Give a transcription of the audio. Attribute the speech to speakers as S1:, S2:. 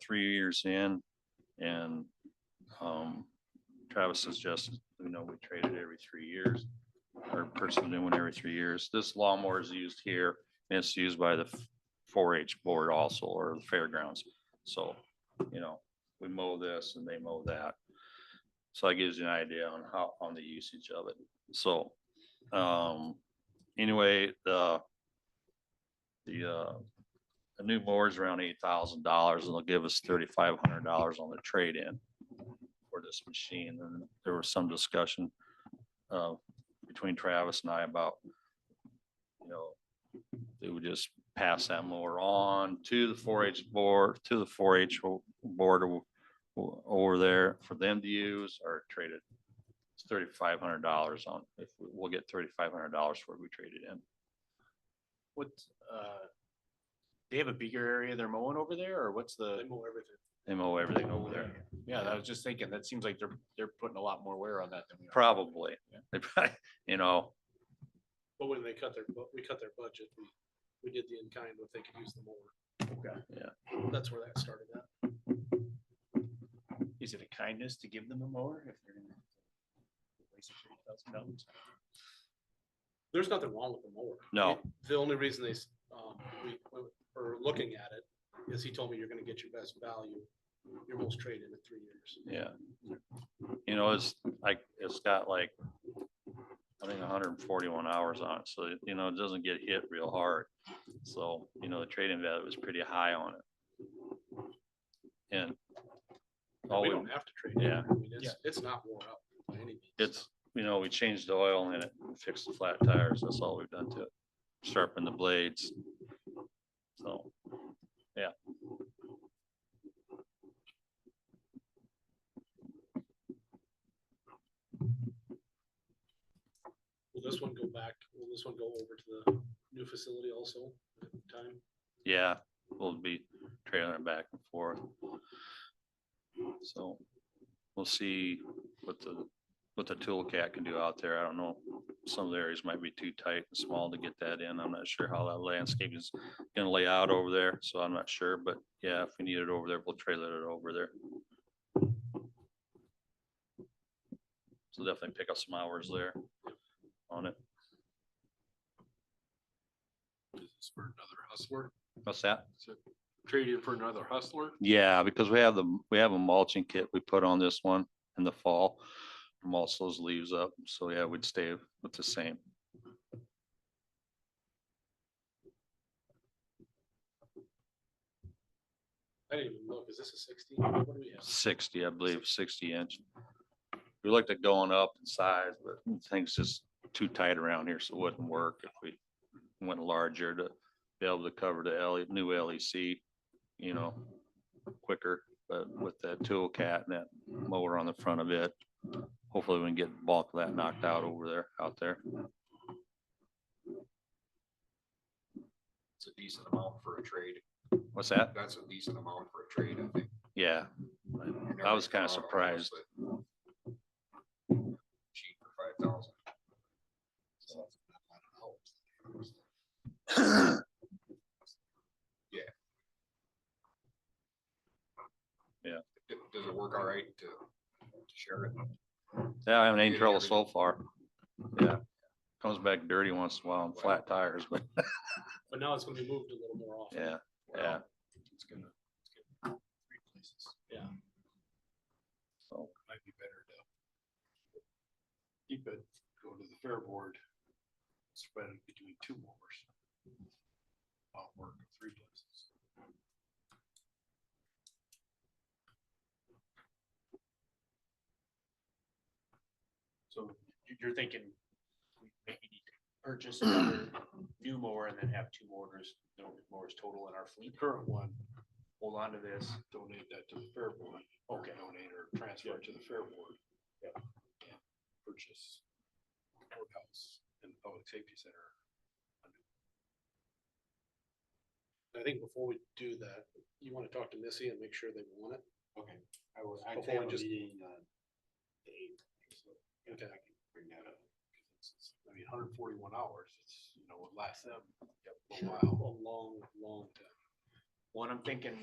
S1: three years in and um, Travis suggested, you know, we trade it every three years or purchase a new one every three years. This lawnmower is used here and it's used by the four H board also or the fairgrounds. So, you know, we mow this and they mow that. So that gives you an idea on how, on the usage of it. So, um, anyway, the the uh, the new mower's around eight thousand dollars and they'll give us thirty-five hundred dollars on the trade-in for this machine. And there was some discussion uh, between Travis and I about, you know, they would just pass that mower on to the four H board, to the four H board o- o- over there for them to use or trade it. It's thirty-five hundred dollars on, if we- we'll get thirty-five hundred dollars for it, we trade it in.
S2: What, uh, they have a bigger area they're mowing over there or what's the?
S1: They mow everything over there.
S2: Yeah, I was just thinking, that seems like they're, they're putting a lot more wear on that than we are.
S1: Probably.
S2: Yeah.
S1: They probably, you know,
S3: But when they cut their, bu- we cut their budget, we, we did the in-kind, what they could use the more.
S1: Yeah.
S3: That's where that started at.
S2: Is it a kindness to give them a mower if they're gonna? replace a $30,000?
S3: There's nothing wrong with the mower.
S1: No.
S3: It- The only reason they, s- um, we, went- are looking at it is he told me you're gonna get your best value, your most trade in in three years.
S1: yeah. You know, it's like, it's got like, I think hundred and forty-one hours on it, so, you know, it doesn't get hit real hard. So, you know, the trading value was pretty high on it. And all
S3: We
S1: we,
S3: don't have to trade. it.
S1: yeah.
S3: I mean, It's, it's not worn up by any means.
S1: it's, you know, we changed the oil in it, and fixed the flat tires, that's all we've done to it, sharpened the blades. So, yeah.
S3: Will this one go back, will this one go over to the new facility also at the time?
S1: Yeah, we'll be trailing it back and forth. So we'll see what the, what the tool cat can do out there. I don't know. Some of the areas might be too tight and small to get that in. I'm not sure how that landscape is gonna lay out over there, so I'm not sure, but yeah, if we need it over there, we'll trailer it over there. So definitely pick up some hours there on it.
S3: For another hustler,
S1: What's that?
S3: trade in for another hustler?
S1: Yeah, because we have the, we have a mulching kit we put on this one in the fall. Mulch those leaves up, so yeah, we'd stay with the same.
S3: I didn't even look, is this a sixteen? What do we have?
S1: sixty, I believe, sixty inch. We looked at going up in size, but things just too tight around here, so it wouldn't work if we went larger to be able to cover the L, E, new LEC, you know, quicker, but with that tool cat and that mower on the front of it, hopefully we can get bulk of that knocked out over there, out there.
S4: It's a decent amount for a trade.
S1: What's that?
S4: That's a decent amount for a trade, I think.
S1: Yeah,
S4: You're never
S1: I was
S4: gonna
S1: kinda
S4: come out on those,
S1: surprised.
S4: but Cheap for five thousand. Yeah.
S1: Yeah.
S4: D- Does it work all right to to share it?
S1: yeah, I haven't had any trouble so far. Yeah, comes back dirty once in a while on flat tires, but
S3: But now it's gonna be moved a little more often.
S1: yeah, yeah.
S4: It's gonna. it's gonna- three places. Mm,
S3: Yeah.
S1: So.
S4: Might be better to. Keep it, go to the fair board, spread it between two mowers. Not work in three places.
S2: So you- you're thinking we maybe need to purchase another new mower and then have two mowers, no mowers total in our fleet? Current one. Hold on to this.
S4: donate that to the fair board. or
S2: Okay.
S4: Donate or transfer it to the fair board.
S2: Yep.
S4: And Purchase courthouse and public safety center.
S3: I think before we do that, you wanna talk to Missy and make sure they want it.
S4: Okay. I will, I
S3: Before we
S4: have a
S3: just-
S4: meeting on the eighth. so I
S3: Okay.
S4: can Bring that up. 'cause it's- it's- I mean, hundred forty-one hours, it's, you know, it lasts them a while.
S3: A long, long time.
S2: One, I'm thinking